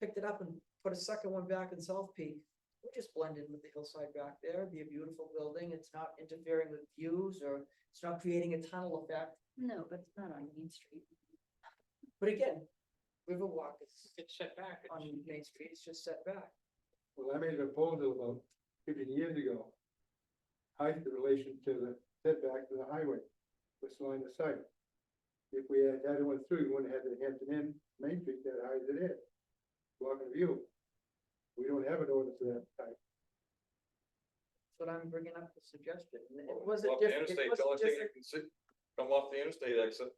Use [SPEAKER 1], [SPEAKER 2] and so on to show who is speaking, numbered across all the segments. [SPEAKER 1] picked it up and put a second one back in South Peak. We just blend in with the hillside back there, It'd be a beautiful building, it's not interfering with views or it's not creating a tunnel effect,
[SPEAKER 2] No, but it's not on Main Street.
[SPEAKER 1] but again, Riverwalk is
[SPEAKER 3] It's set back.
[SPEAKER 1] on Main Street, it's just set back.
[SPEAKER 4] Well, I made a proposal about fifteen years ago. Height in relation to the setback to the highway, this line of sight. If we had had one through, you wouldn't have had the Hampton Inn Main Street that high as it is. Block of view. We don't have an ordinance of that type.
[SPEAKER 1] But I'm bringing up the suggestion, and it
[SPEAKER 5] Well,
[SPEAKER 1] wasn't
[SPEAKER 5] off the
[SPEAKER 1] different,
[SPEAKER 5] interstate,
[SPEAKER 1] it
[SPEAKER 5] the
[SPEAKER 1] wasn't
[SPEAKER 5] only thing
[SPEAKER 1] different,
[SPEAKER 5] you can see- Come off the interstate exit.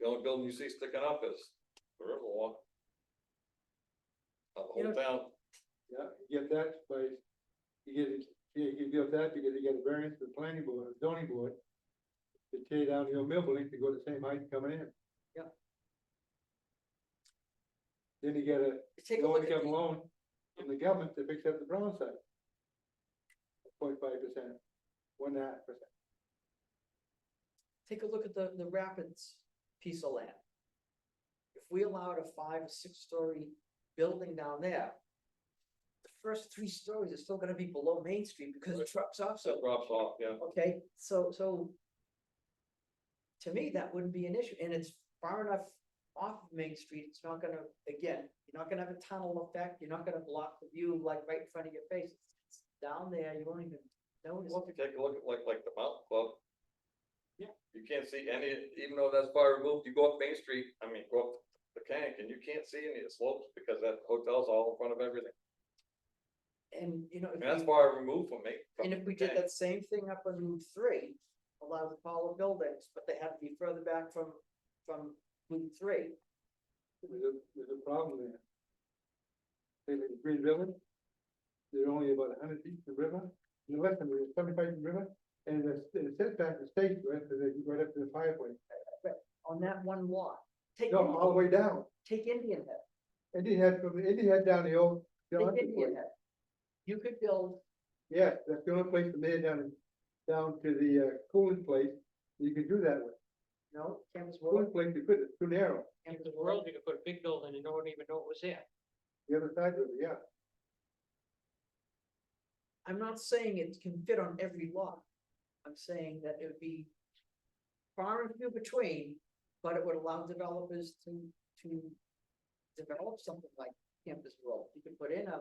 [SPEAKER 5] The only building you see sticking up is the Riverwalk. Of The
[SPEAKER 1] You know-
[SPEAKER 5] whole town,
[SPEAKER 4] Yeah, you get that place. You get, it- you, you get that because you get a variance from the planning board, zoning board. To tear down your mill building to go the same height coming in.
[SPEAKER 1] Yeah.
[SPEAKER 4] Then you get a
[SPEAKER 1] take a
[SPEAKER 4] low
[SPEAKER 1] look at
[SPEAKER 4] income
[SPEAKER 1] the,
[SPEAKER 4] loan from the government to fix up the brown side. Point five percent, one and a half percent.
[SPEAKER 1] take a look at the, the Rapids piece of land. If we allowed a five or six story building down there. The first three stories are still gonna be below Main Street because the trucks off so
[SPEAKER 5] that drops off, yeah.
[SPEAKER 1] Okay, so, so. To me, that wouldn't be an issue, and it's far enough off of Main Street, it's not gonna, again, you're not gonna have a tunnel effect, you're not gonna block the view like right in front of your face. It's Down there, you won't even notice,
[SPEAKER 5] Well, if you take a look at like, like the mountain club.
[SPEAKER 3] Yeah.
[SPEAKER 5] You can't see any, even though that's far removed, you go up Main Street, I mean, go up the Kank and you can't see any of the slopes because that hotel's all in front of everything.
[SPEAKER 1] and you know, if
[SPEAKER 5] And that's
[SPEAKER 1] we-
[SPEAKER 5] far removed from me.
[SPEAKER 1] and if we did that same thing up on Route three. A lot of taller buildings, but they had to be further back from, from Route three,
[SPEAKER 4] There's a, there's a problem there. Say like the Green River, they're only about hundred feet from the river, and less than seventy-five from the river, and the, the setback is state right to the, right up to the fireway.
[SPEAKER 1] on that one lot. Take,
[SPEAKER 4] No, all the
[SPEAKER 1] Indian-
[SPEAKER 4] way down,
[SPEAKER 1] take Indian Head.
[SPEAKER 4] and he had from, and he had down the old.
[SPEAKER 1] They
[SPEAKER 4] Johnson
[SPEAKER 1] did hear
[SPEAKER 4] place.
[SPEAKER 1] that. You could build,
[SPEAKER 4] Yeah, that's the only place from there down, down to the, uh, cooling place, you can do that with.
[SPEAKER 1] no, Campus
[SPEAKER 4] One
[SPEAKER 1] World,
[SPEAKER 4] place you could, it's too narrow,
[SPEAKER 3] In
[SPEAKER 1] Campus
[SPEAKER 3] the
[SPEAKER 1] World,
[SPEAKER 3] world, you could put a big building and no one even know it was there.
[SPEAKER 4] the other side of it, yeah.
[SPEAKER 1] I'm not saying it can fit on every lot. I'm saying that it would be far and few between, but it would allow developers to, to develop something like Campus World. You could put in a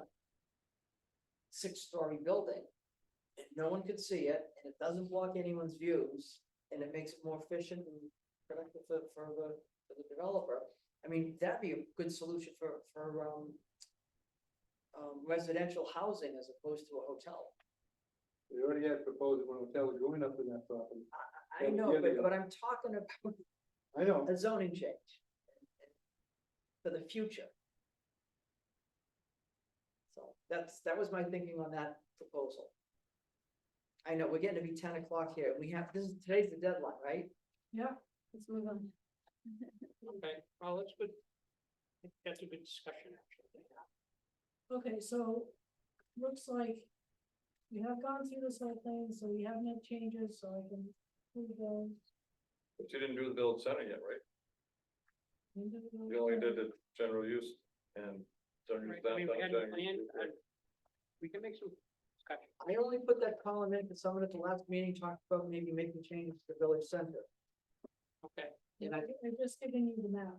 [SPEAKER 1] six-story building, and no one could see it, and it doesn't block anyone's views, and it makes it more efficient and productive for, for the, for the developer. I mean, that'd be a good solution for, for, um, um, residential housing as opposed to a hotel.
[SPEAKER 4] They already had proposed one hotel going up in that property.
[SPEAKER 1] I
[SPEAKER 4] Yeah,
[SPEAKER 1] know,
[SPEAKER 4] yeah,
[SPEAKER 1] but,
[SPEAKER 4] yeah.
[SPEAKER 1] but I'm talking about
[SPEAKER 4] I know,
[SPEAKER 1] a zoning change. For the future. So that's, that was my thinking on that proposal. I know, we're getting to be ten o'clock here, we have, this is, today's the deadline, right?
[SPEAKER 2] Let's move on.
[SPEAKER 3] Okay, well, that's good. I think That's a good discussion, actually.
[SPEAKER 6] Okay, so looks like you have gone through this whole thing, so you have no changes, so I can move on.
[SPEAKER 5] But you didn't do the build center yet, right? You only did the general use and general use
[SPEAKER 3] Right, I mean, we
[SPEAKER 5] downtown, general use
[SPEAKER 3] had a plan,
[SPEAKER 5] retail.
[SPEAKER 3] uh, We can make some discussion.
[SPEAKER 1] I only put that column in because someone at the last meeting talked about maybe making changes to the village center.
[SPEAKER 3] Okay,
[SPEAKER 1] And I,
[SPEAKER 6] I've just given you the map.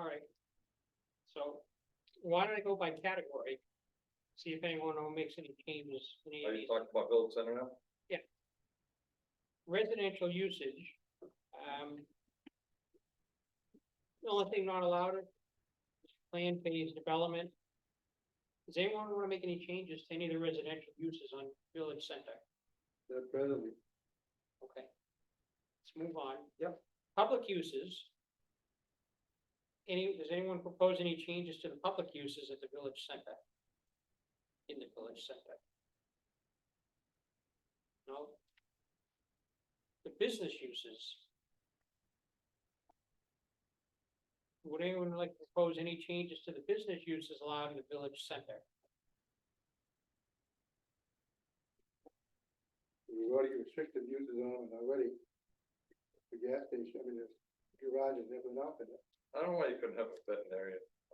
[SPEAKER 3] all right. So why don't I go by category? See if anyone makes any changes, any
[SPEAKER 5] Are
[SPEAKER 3] of
[SPEAKER 5] you
[SPEAKER 3] these.
[SPEAKER 5] talking about build center now?
[SPEAKER 3] residential usage, um. The only thing not allowed is plan phase development. Does anyone wanna make any changes to any of the residential uses on Village Center?
[SPEAKER 4] the presently,
[SPEAKER 3] Okay. Let's move on.
[SPEAKER 1] Yep.
[SPEAKER 3] Public uses. Any, does anyone propose any changes to the public uses at the Village Center? In the Village Center? No? The business uses. Would anyone like to propose any changes to the business uses allowed in the Village Center?
[SPEAKER 4] we've already restricted uses on it already. The gas station, I mean, the garage is never enough in it.
[SPEAKER 5] I don't know why you couldn't have a veterinarian